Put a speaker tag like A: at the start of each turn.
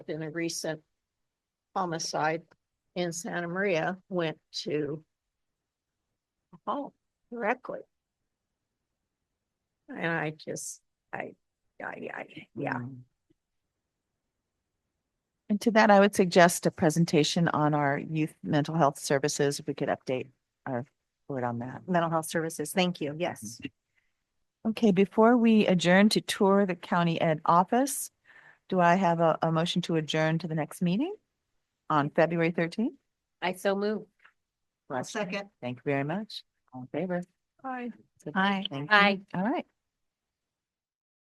A: in a recent homicide in Santa Maria went to a home directly. And I just, I, I, I, yeah,
B: Mm. And to that, I would suggest a presentation on our youth mental health services. If we could update our board on that.
C: Mental health services, thank you, yes.
B: Okay, before we adjourn to tour the county ed office, do I have a, a motion to adjourn to the next meeting on February thirteenth?
C: I so move.
B: Second. Thank you very much. All in favor?
A: I.
B: Good.
C: Aye.
B: Thank you.
C: Aye.
B: All right.